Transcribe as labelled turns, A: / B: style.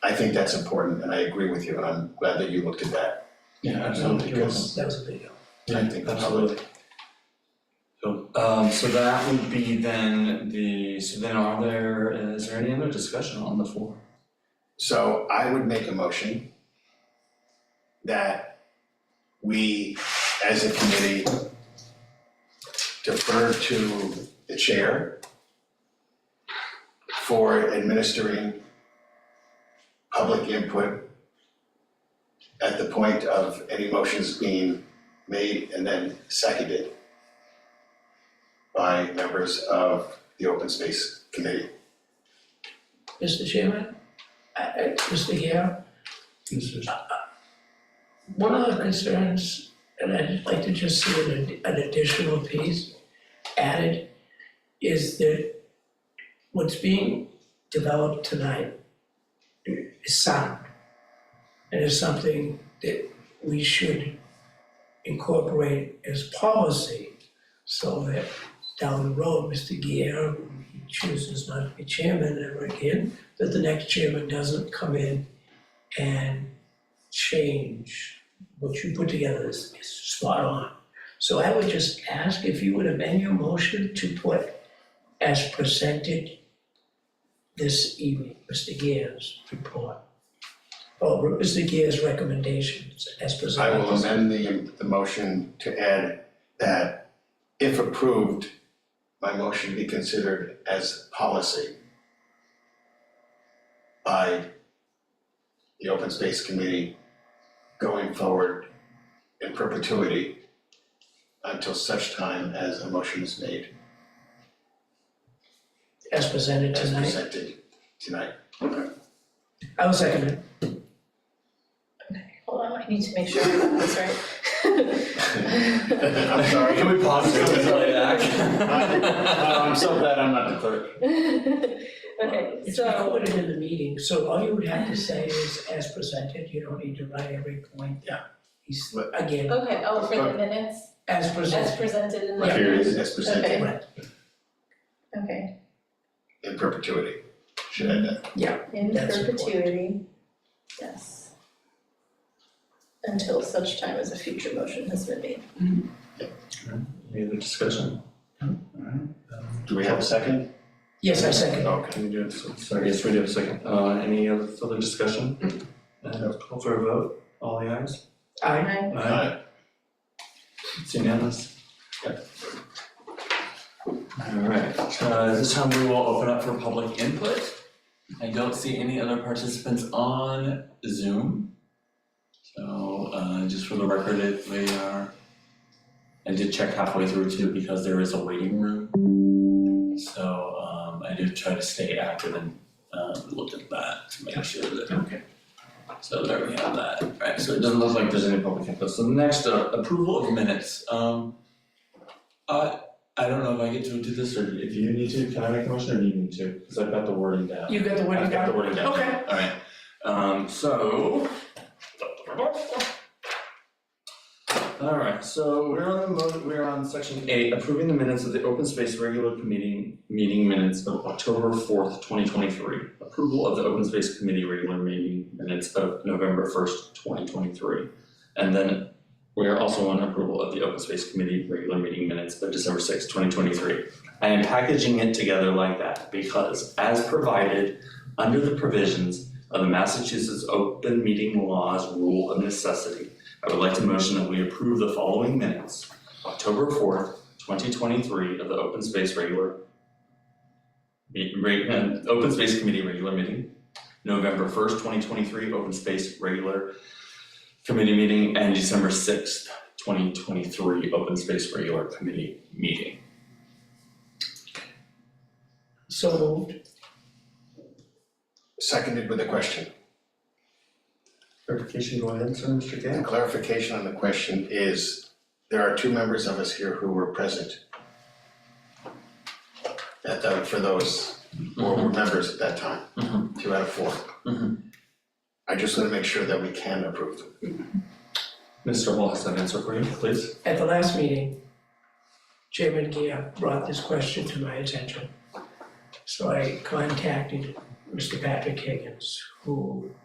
A: I think that's important, and I agree with you, and I'm glad that you looked at that.
B: Yeah,
A: absolutely, because-
B: That was a big help.
A: I think the
C: Absolutely.
A: public,
C: So, um, so that would be then the, so then are there, is there any other discussion on the floor?
A: so I would make a motion that we, as a committee, defer to the chair for administering public input at the point of any motions being made and then seconded by members of the Open Space Committee.
B: Mr. Chairman, uh, I, I, Mr. Gale, one of the concerns, and I'd like to just see an, ad- an additional piece added, is that what's being developed tonight is sound. And is something that we should incorporate as policy so that down the road, Mr. Guerrero he chooses not to be chairman ever again, that the next chairman doesn't come in and change what you put together is, is spot on. So I would just ask if you would amend your motion to put as presented this evening, Mr. Guerrero's report. Or Mr. Guerrero's recommendations as
A: I
B: presented.
A: will amend the, the motion to add that if approved, my motion be considered as policy by the Open Space Committee going forward in perpetuity until such time as a motion is made
B: As presented
A: as
B: tonight.
A: presented tonight.
B: I will second it.
D: Hold on, I need to make sure I got this right.
A: I'm sorry.
C: Can we pause this and play back?
A: Oh, I'm so glad I'm not the clerk.
D: Okay,
B: It's
D: so,
B: recorded in the meeting, so all you would have to say is as presented, you don't need to write every point.
A: Yeah.
B: He's,
A: But-
B: again,
D: okay, oh, for the minutes,
B: as
D: as
B: presented,
D: presented in the.
A: Right here it is, as presented
B: right,
D: Okay,
A: in perpetuity. Should add that.
D: in
B: That's important.
D: perpetuity, yes. Until such time as a future motion has been made.
C: Any other discussion? Alright,
A: Do we have a second?
B: yes, I second.
A: Okay.
C: Can we do it, so, sorry, yes, we do have a second, uh, any other further discussion? And call for a vote, all the ayes?
B: I,
D: Aye.
A: Aye.
C: It's unanimous. Yep. Alright, uh, this time we will open up for public input. I don't see any other participants on Zoom. So, uh, just for the record, it, we are, I did check halfway through too, because there is a waiting room. So, um, I did try to stay active and, uh, look at that to make sure that
B: okay.
C: so there we have that, right, so it doesn't look like there's any public input, so next, uh, approval of minutes, um. I, I don't know if I get to do this, or if you need to, can I make a motion, or do you need to, cause I've got the wording down.
B: You got the wording
C: I've got the
B: down?
C: wording down.
B: Okay.
C: Alright, um, so. Alright, so we're on the mo- we're on section eight, approving the minutes of the open space regular committee, meeting minutes of October fourth, twenty twenty-three. Approval of the open space committee regular meeting minutes of November first, twenty twenty-three. And then we are also on approval of the open space committee regular meeting minutes of December sixth, twenty twenty-three. I am packaging it together like that because as provided under the provisions of the Massachusetts Open Meeting Laws Rule of Necessity, I would like to motion that we approve the following minutes. October fourth, twenty twenty-three of the Open Space Regular me- reg- uh, Open Space Committee Regular Meeting. November first, twenty twenty-three, Open Space Regular Committee Meeting, and December sixth, twenty twenty-three, Open Space Regular Committee Meeting.
B: So moved.
A: Seconded with a question.
C: Clarification, go ahead, sir, Mr.
A: The
C: Gale.
A: clarification on the question is, there are two members of us here who were present. At the, for those who were members at that time,
C: Mhm.
A: two out of four.
C: Mhm.
A: I just wanna make sure that we can approve them.
C: Mr. Hall has that answer for you, please.
B: At the last meeting, Chairman Gia brought this question to my attention. So I contacted Mr. Patrick Higgins, who